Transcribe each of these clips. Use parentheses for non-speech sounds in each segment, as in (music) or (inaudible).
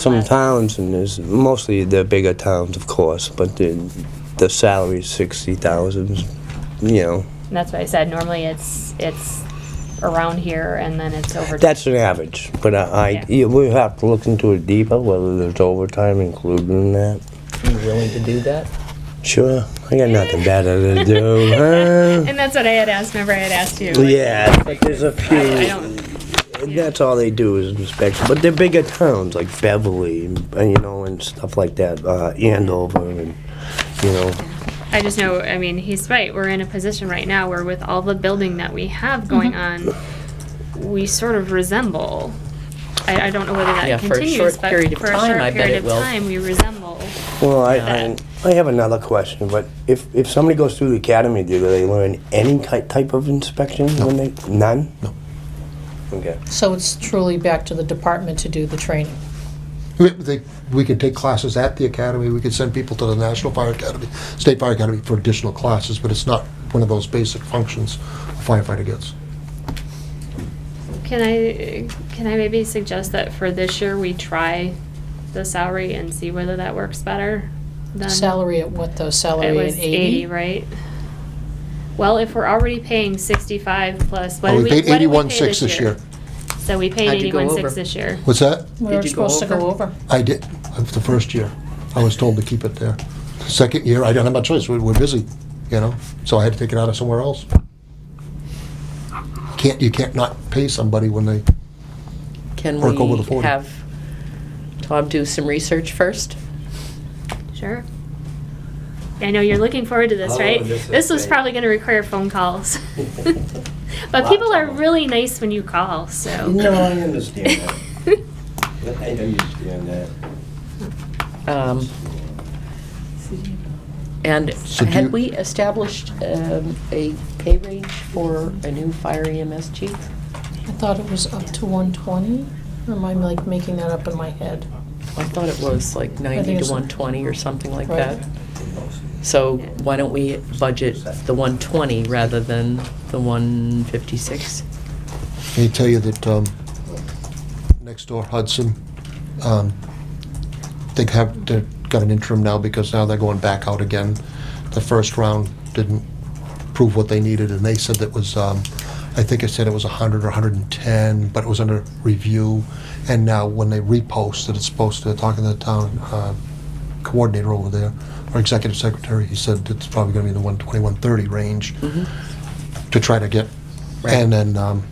some less. towns, and there's mostly the bigger towns, of course, but the, the salary's sixty thousand, you know, And That's what I said, normally it's, it's around here and then it's over. that's an average, but I, I, Yeah. yeah, we have to look into it deeper, whether there's overtime included in that. You willing to do that? Sure, I got nothing better to do, (laughs) huh? And that's what I had asked, remember I had asked you. like, Yeah, but there's a few. I I don't, That's all they do is inspection, but they're bigger towns like Beverly, and you know, and stuff like that, uh, Andover, and you know, I just know, I mean, he's right, we're in a position right now where with all the building that we have going on, we sort of resemble, I, I don't know whether Yeah, that for a continues, short but period of for a time, I short bet period it of will. time, we resemble. Well, I, I, That. I have another question, but if, if somebody goes through the academy, do they learn any ki- type of inspection when they, none? No. Okay. So it's truly back to the department to do the training. We- they- We could take classes at the academy, we could send people to the National Fire Academy, State Fire Academy for additional classes, but it's not one of those basic functions a firefighter gets. Can I, can I maybe suggest that for this year, we try the salary and see whether that works better? than- Salary at what though? It Salary at was eighty, eighty? right? Well, if we're already paying sixty-five plus, what Oh, did we we, what paid did we pay 81.6 this this year? year. So we paid How'd you go eighty-one six over? this year. What's that? We Did were you go supposed to go over. I did, uh, the first year. I was told to keep it there. Second year, I didn't have my choice, we we're busy, you know, so I had to take it out of somewhere else. Can't, you can't not pay somebody when they, Can Work over the we 40. have Tom do some research first? Sure. I know you're looking forward to this, How right? long this is This was taking? probably gonna require phone calls. (laughs) But people are really nice when you call, so. No, I understand (laughs) that. I understand that. Um, And So do you- had we established um, a pay range for a new fire EMS chief? I thought it was up to one twenty, or am I like making that up in my head? I thought it was like 90 to it's- 120 or something like Right. that. So why don't we budget the 120 rather than the 156? they tell you that, um, next door Hudson, um, they have, they've got an interim now because now they're going back out again. The first round didn't prove what they needed, and they said that was, um, I think it said it was 100 or 110, but it was under review. And now when they repost it, it's supposed to, talking to the town uh, coordinator over there, our executive secretary, he said it's probably going to be in the 120, 130 range to try to get. Right. And then um,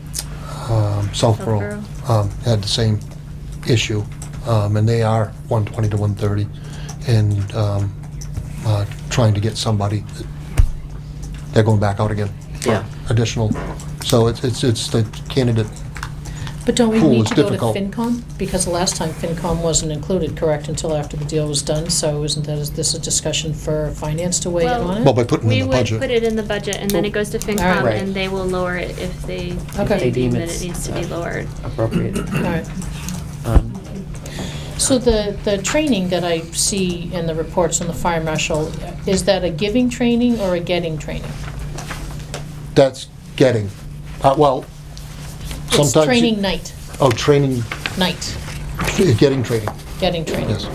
um, Southborough Southborough. um, had the same issue, um, and they are 120 to 130, and um, uh, trying to get somebody. They're going back out again Yeah. additional. So it's, it's, it's the candidate, But don't we Pool need is to go to difficult. FinCom? Because last time FinCom wasn't included, correct, until after the deal was done, so isn't that, is this a discussion for finance to weigh in Well- on it? well, by putting We in the would budget. put it in the budget and then it goes to FinCom Alright. and they will lower it if they, if Okay. they deem that it's, it needs to uh, be lowered. (clears throat) Appropriate. Alright. Um, So the, the training that I see in the reports on the fire marshal, is that a giving training or a getting training? That's getting, uh, well, It's sometimes. you- training night, Oh, training, night, getting training, getting training. yes,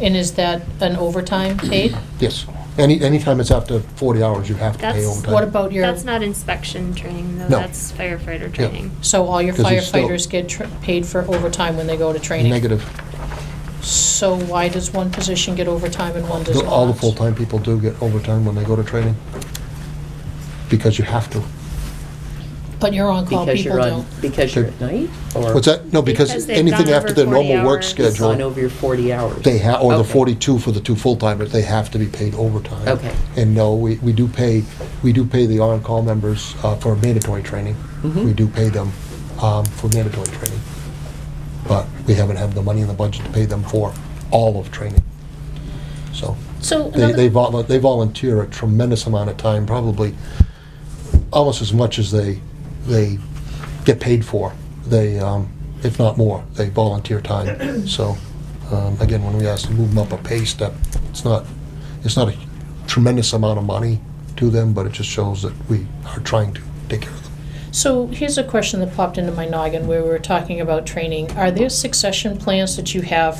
And is that an overtime (clears throat) paid? yes. Any, anytime it's after 40 hours, you have to pay That's- overtime. What about your, That's not inspection training though, No. that's firefighter training. so all your 'Cause it's still- firefighters get tr- paid for overtime when they go to training? Negative. So why does one position get overtime and one does The- not? All the full-time people do get overtime when they go to training, because you have to. But your on-call Because people you're on, don't. because you're at night? or What's that? No, Because because they've anything gone after over their normal 40 work hours. It's on schedule, over your 40 hours? they have, or the Okay. 42 for the two full-timers, they have to be paid overtime. Okay. And no, we, we do pay, we do pay the on-call members uh, for mandatory training. Mhm. We do pay them um, for mandatory training. But we haven't had the money in the budget to pay them for all of training. So. So They, they another, vol- they volunteer a tremendous amount of time, probably almost as much as they, they get paid for. They, um, if not more, they (clears throat) volunteer time. So, um, again, when we ask to move them up a pay step, it's not, it's not a tremendous amount of money to them, but it just shows that we are trying to take care of them. so here's a question that popped into my noggin where we were talking about training. Are there succession plans that you have